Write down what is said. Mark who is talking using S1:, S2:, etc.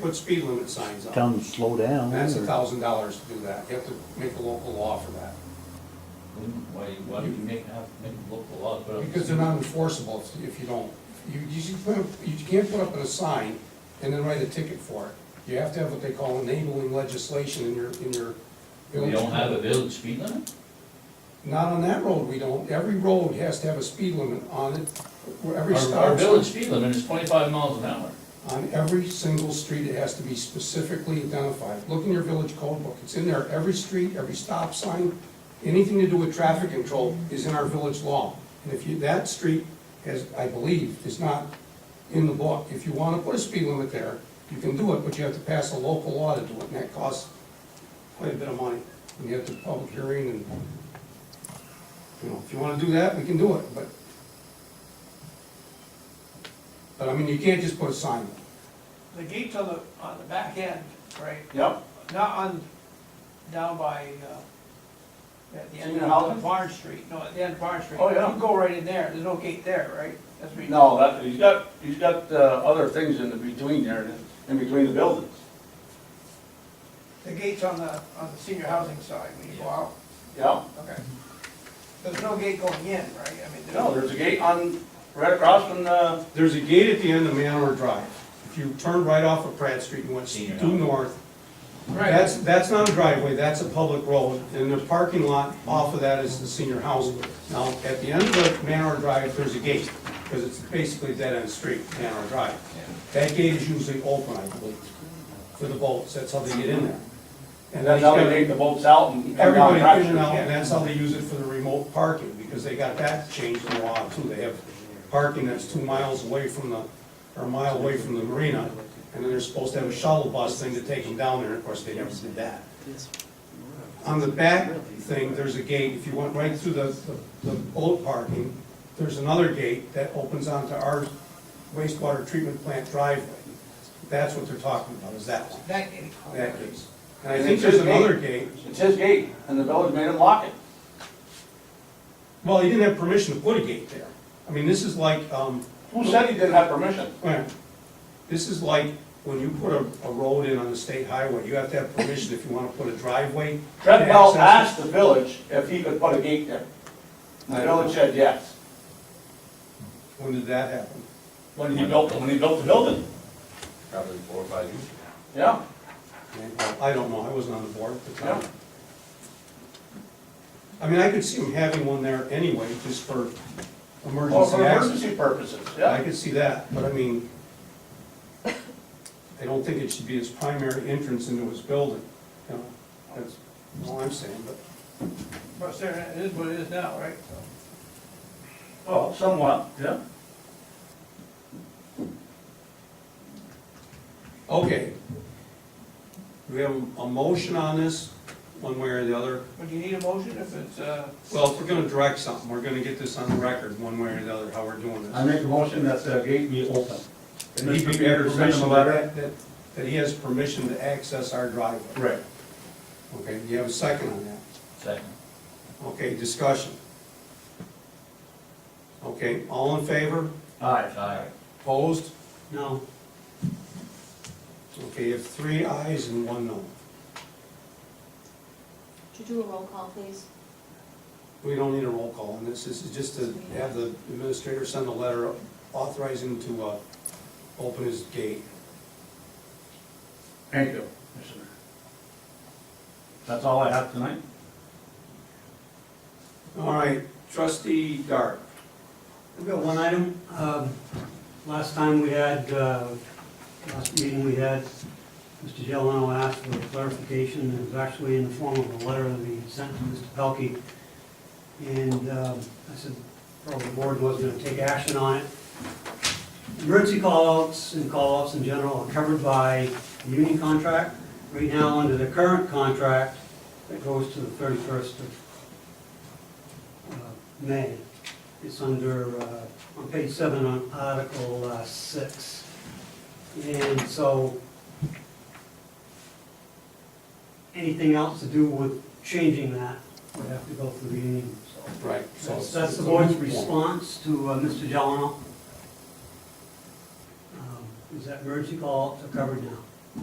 S1: put speed limit signs
S2: tell
S1: up.
S2: them to slow down.
S1: That's a
S2: or-
S1: thousand dollars to do that. You have to make a local law for that.
S3: Why, why do you make, have, make local law, but.
S1: Because they're not enforceable if- if you don't, you, you should put, up- you can't put up a sign and then write a ticket for it. You have to have what they call enabling legislation in your, in your.
S3: We don't have a village speed limit?
S1: Not on that road, we don't. Every road has to have a speed limit on it, where every
S3: Our,
S1: stop.
S3: our village speed limit is twenty-five miles an hour.
S1: On every single street, it has to be specifically identified. Look in your village code book, it's in there, every street, every stop sign, anything to do with traffic control is in our village law. And if you, that street has, I believe, is not in the book. If you want to put a speed limit there, you can do it, but you have to pass a local law to do it, and that costs quite a bit of money. And you have to public hearing and, you know, if you want to do that, we can do it, but but I mean, you can't just put a sign up.
S4: The gate's on the, on the back end, right?
S5: Yep.
S4: Not on, down by, uh, at the end
S5: Senior
S4: of
S5: housing?
S4: Barn Street, no, at the end of Barn Street.
S5: Oh, yeah.
S4: You go right in there, there's no gate there, right? That's what you-
S5: No, that, he's got, he's got uh, other things in the between there, in between the buildings.
S4: The gate's on the, on the senior housing side when you go out,
S5: Yeah.
S4: okay. There's no gate going in, right? I mean,
S5: No, there's a gate on, right across from uh, the,
S1: There's a gate at the end of Manor Drive. If you turn right off of Pratt Street and went
S3: Senior
S1: due
S3: housing.
S1: north,
S4: Right,
S1: that's, that's not a driveway, that's a public road, and the parking lot off of that is the senior housing. Now, at the end of Manor Drive, there's a gate, because it's basically dead end street, Manor Drive. That gate is usually open, I believe, for the boats, that's how they get in there. And then
S5: that's how they take the boats out and. come down
S1: Everybody
S5: Pratt
S1: in and out,
S5: Street.
S1: and that's how they use it for the remote parking, because they got that changed in the law too. They have parking that's two miles away from the, or a mile away from the marina, and then they're supposed to have a shuttle bus thing to take them down there, of course, they never did that. On the back thing, there's a gate, if you went right through the, the- the boat parking, there's another gate that opens onto our wastewater treatment plant driveway. That's what they're talking about, is that one,
S4: that gate.
S1: that case. And I think there's another gate,
S5: It's his gate, and the village made him lock it.
S1: Well, he didn't have permission to put a gate there. I mean, this is like, um,
S5: Who said he didn't have permission?
S1: well, this is like when you put a, a road in on the state highway, you have to have permission if you wanna put a driveway.
S5: Fred Bell
S1: to access
S5: asked the village if he could put a gate there. And the village said yes.
S1: it. When did that happen?
S5: When he built, when he built the building,
S3: Probably four or five years ago.
S5: yeah.
S1: I don't know, I wasn't on the board at the time.
S5: Yeah.
S1: I mean, I could see him having one there anyway, just for
S5: Well,
S1: emergency
S5: for
S1: access.
S5: emergency purposes,
S1: I
S5: yeah.
S1: could see that, but I mean, I don't think it should be his primary entrance into his building, you know? That's all I'm saying, but.
S4: But there, it is what it is now, right?
S5: Well, somewhat, yeah.
S1: Okay. Do we have a motion on this, one way or the other?
S4: But you need a motion if it's, uh,
S1: Well, if we're gonna direct something, we're gonna get this on the record, one way or the other, how we're doing this.
S6: I make a motion that the gate be open.
S1: That he
S6: Mr.
S1: be-
S6: Peters sent him a letter?
S1: That, that he has permission to access our driveway.
S6: Right.
S1: Okay, do you have a second on that?
S3: Second.
S1: Okay, discussion. Okay, all in favor?
S6: Aye.
S3: Aye.
S1: Opposed? No. Okay, you have three ayes and one no.
S7: Could you do a roll call, please?
S1: We don't need a roll call on this, this is just to have the administrator send a letter authorizing him to, uh, open his gate.
S6: Thank you, Commissioner. That's all I have tonight.
S1: All right, trustee Dart.
S8: I've got one item. Um, Last time we had, uh, last meeting we had, Mr. Gelano asked for clarification, and it was actually in the form of a letter that he sent to Mr. Pelkey. And um, I said, probably the board wasn't gonna take action on it. Emergency callouts and callouts in general are covered by the union contract. Right now, under the current contract, that goes to the thirty-first of uh, May. It's under, uh, on page seven, on Article uh, six. And so, anything else to do with changing that would have to go through the union, so.
S1: Right.
S8: So that's the board's response to uh, Mr. Delano. Um, Is that emergency call are covered now?